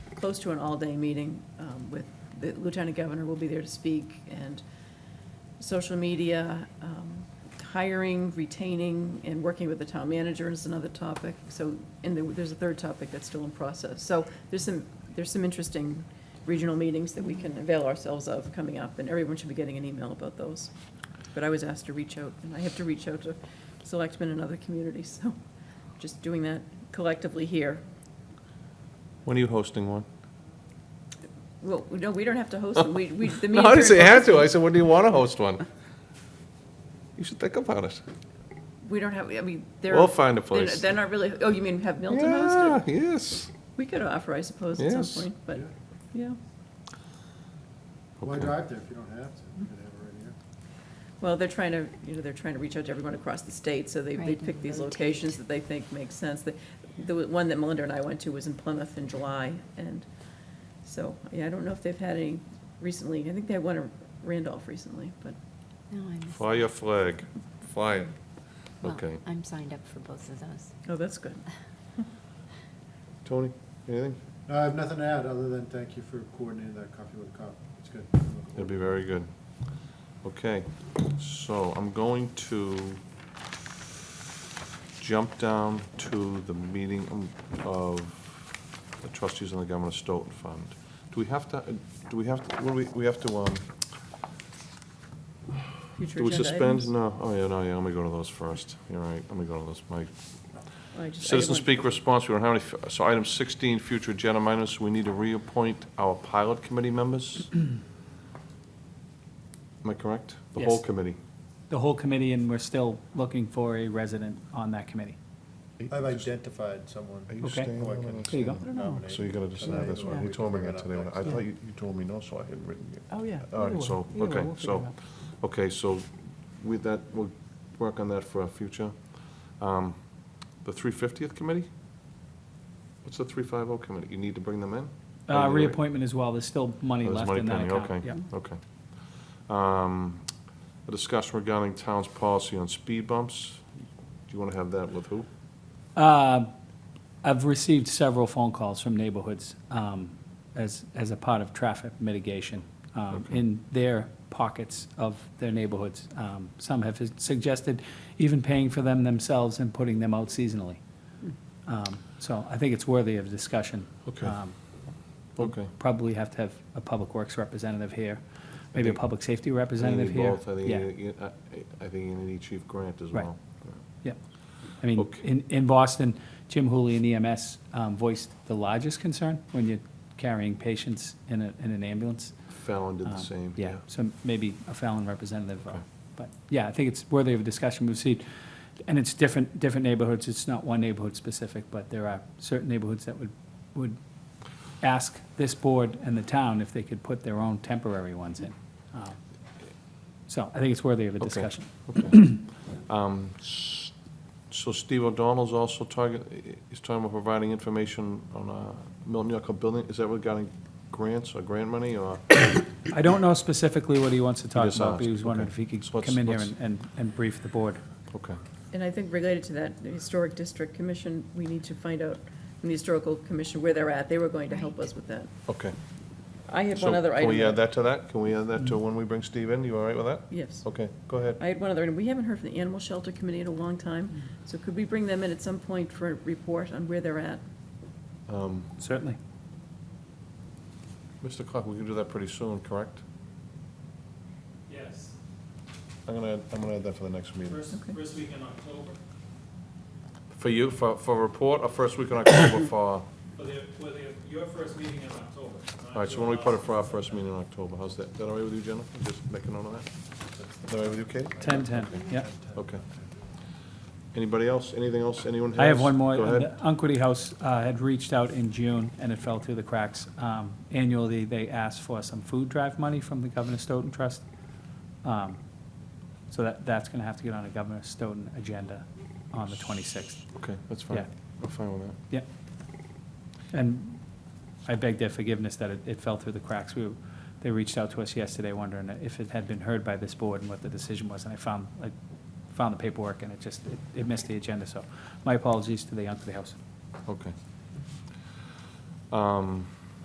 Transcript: close to an all-day meeting um, with, the Lieutenant Governor will be there to speak, and social media, um, hiring, retaining, and working with the town manager is another topic. So, and there- there's a third topic that's still in process. So there's some, there's some interesting regional meetings that we can avail ourselves of coming up, and everyone should be getting an email about those. But I was asked to reach out, and I have to reach out to selectmen in other communities, so just doing that collectively here. When are you hosting one? Well, no, we don't have to host them. We, we, the No, meetings. I didn't are- say had to, I said, when do you want to host one? You should think about it. We don't have, I mean, they're. We'll find a they're not- place. They're not really, oh, you mean have Milton host it? Yeah, yes. We could offer, I suppose, at some Yes. point, but, yeah. Why Okay. drive there if you don't have to? You could have it right here. Well, they're trying to, you know, they're trying to reach out to everyone across the state, so they, they Right, pick and these rotate. locations that they think make sense. The, the one that Melinda and I went to was in Plymouth in July, and so, yeah, I don't know if they've had any recently. I think they had one in Randolph recently, but, No, I missed. Fly your flag, fly it. well, Okay. I'm signed up for both of those. oh, that's good. Tony, anything? No, I have nothing to add, other than thank you for coordinating that coffee with a cop. It's good. That'd be very good. Okay, so I'm going to jump down to the meeting of the trustees on the Governor Stoughton Fund. Do we have to, uh, do we have, to? what do we, we have to, um, Future do we agenda suspend? items? No, oh, yeah, no, yeah, let me go to those first. You're right, let me go to those. My I just- I Citizen didn't speak response, we don't have any, f- so item 16, future agenda minus, we need to reappoint our pilot committee members? Am I correct? The whole Yes. committee? the whole committee, and we're still looking for a resident on that committee. I've identified someone. Are you Okay. staying who I on can it? There you go. nominate. So you're gonna decide this one, We he can told me bring it that up today, when I next. I thought you, you told me no, so I hadn't written you. Oh, yeah. All right, so, okay, so, okay, so with that, we'll work on that for our future. Um, The 350th committee? What's the 350 committee? You need to bring them in? Or you Uh, already- reappointment as well, there's still money Oh, there's left money in that pending, account. Yeah. Okay, okay. Um, A discussion regarding town's policy on speed bumps. Do you wanna have that with who? Uh, I've received several phone calls from neighborhoods um, as, as a part of traffic mitigation um, Okay. in their pockets of their neighborhoods. Um, Some have suggested even paying for them themselves and putting them out seasonally. Um, So I think it's worthy of discussion. Hmm. Okay. Um, we'll Okay. Probably have to have a public works representative here, maybe a think- public safety I think you representative need here. both. I think Yeah. you need- you- I I think you need Chief Grant as Right. well. Yep. I mean, Okay. in, in Boston, Jim Hooley and EMS um, voiced the largest concern when you're carrying patients in a, in an ambulance. Fallon did the Um, same, Yeah, yeah. so maybe a Fallon representative. uh, Okay. But, yeah, I think it's worthy of discussion. We've seen, and it's different, different neighborhoods. It's not one neighborhood specific, but there are certain neighborhoods that would, would ask this board and the town if they could put their own temporary ones in. Um, So I think it's worthy of a Okay. discussion. Okay. Um, s- So Steve O'Donnell's also talking, he's talking about providing information on uh, Milton York building. Is that regarding grants or grant money or? I don't know specifically what he wants to talk just about, but asked, he was wondering okay. if he could So let's- come in here let's- and- and, and brief the board. Okay. And I think related to that, the Historic District Commission, we need to find out from the Historical Commission where they're at. They were going to help us with that. Okay. I had So one other item. Mm-hmm. Can we add that to that? Can we add that to when we bring Steve in? You all right with that? Yes. Okay, go ahead. I had one other, item. we haven't heard from the Animal Shelter Committee in a long time, so could we bring them in at some point for a report on where they're at? Um, Certainly. Mr. Clark, we can do that pretty soon, correct? Yes, I'm gonna, add- I'm gonna add that for the next meeting. first, Okay. first week in October, For you, for, for a report or first week in October for, all for their, for their, your first meeting in October. not right, so your when we put it last. for our first meeting in October, how's that? Is that all right with you, Jennifer? Just make a note of that? Is that all right with you, Katie? 10-10, yeah. Okay. Anybody else? Anything else? Anyone has? I have one more. Go ahead. The Unquity House uh, had reached out in June, and it fell through the cracks. Um, Annually, they asked for some food drive money from the Governor Stoughton Trust. Um, So that, that's going to have to get on a Governor Stoughton agenda on the 26th. Okay, that's fine. Yeah. I'm fine with that. Yep. And I beg their forgiveness that it, it fell through the cracks. We, were- they reached out to us yesterday wondering if it had been heard by this board and what the decision was, and I found, I found the paperwork and it just, it- it missed the agenda, so my apologies to the Young for the House. Okay. Um,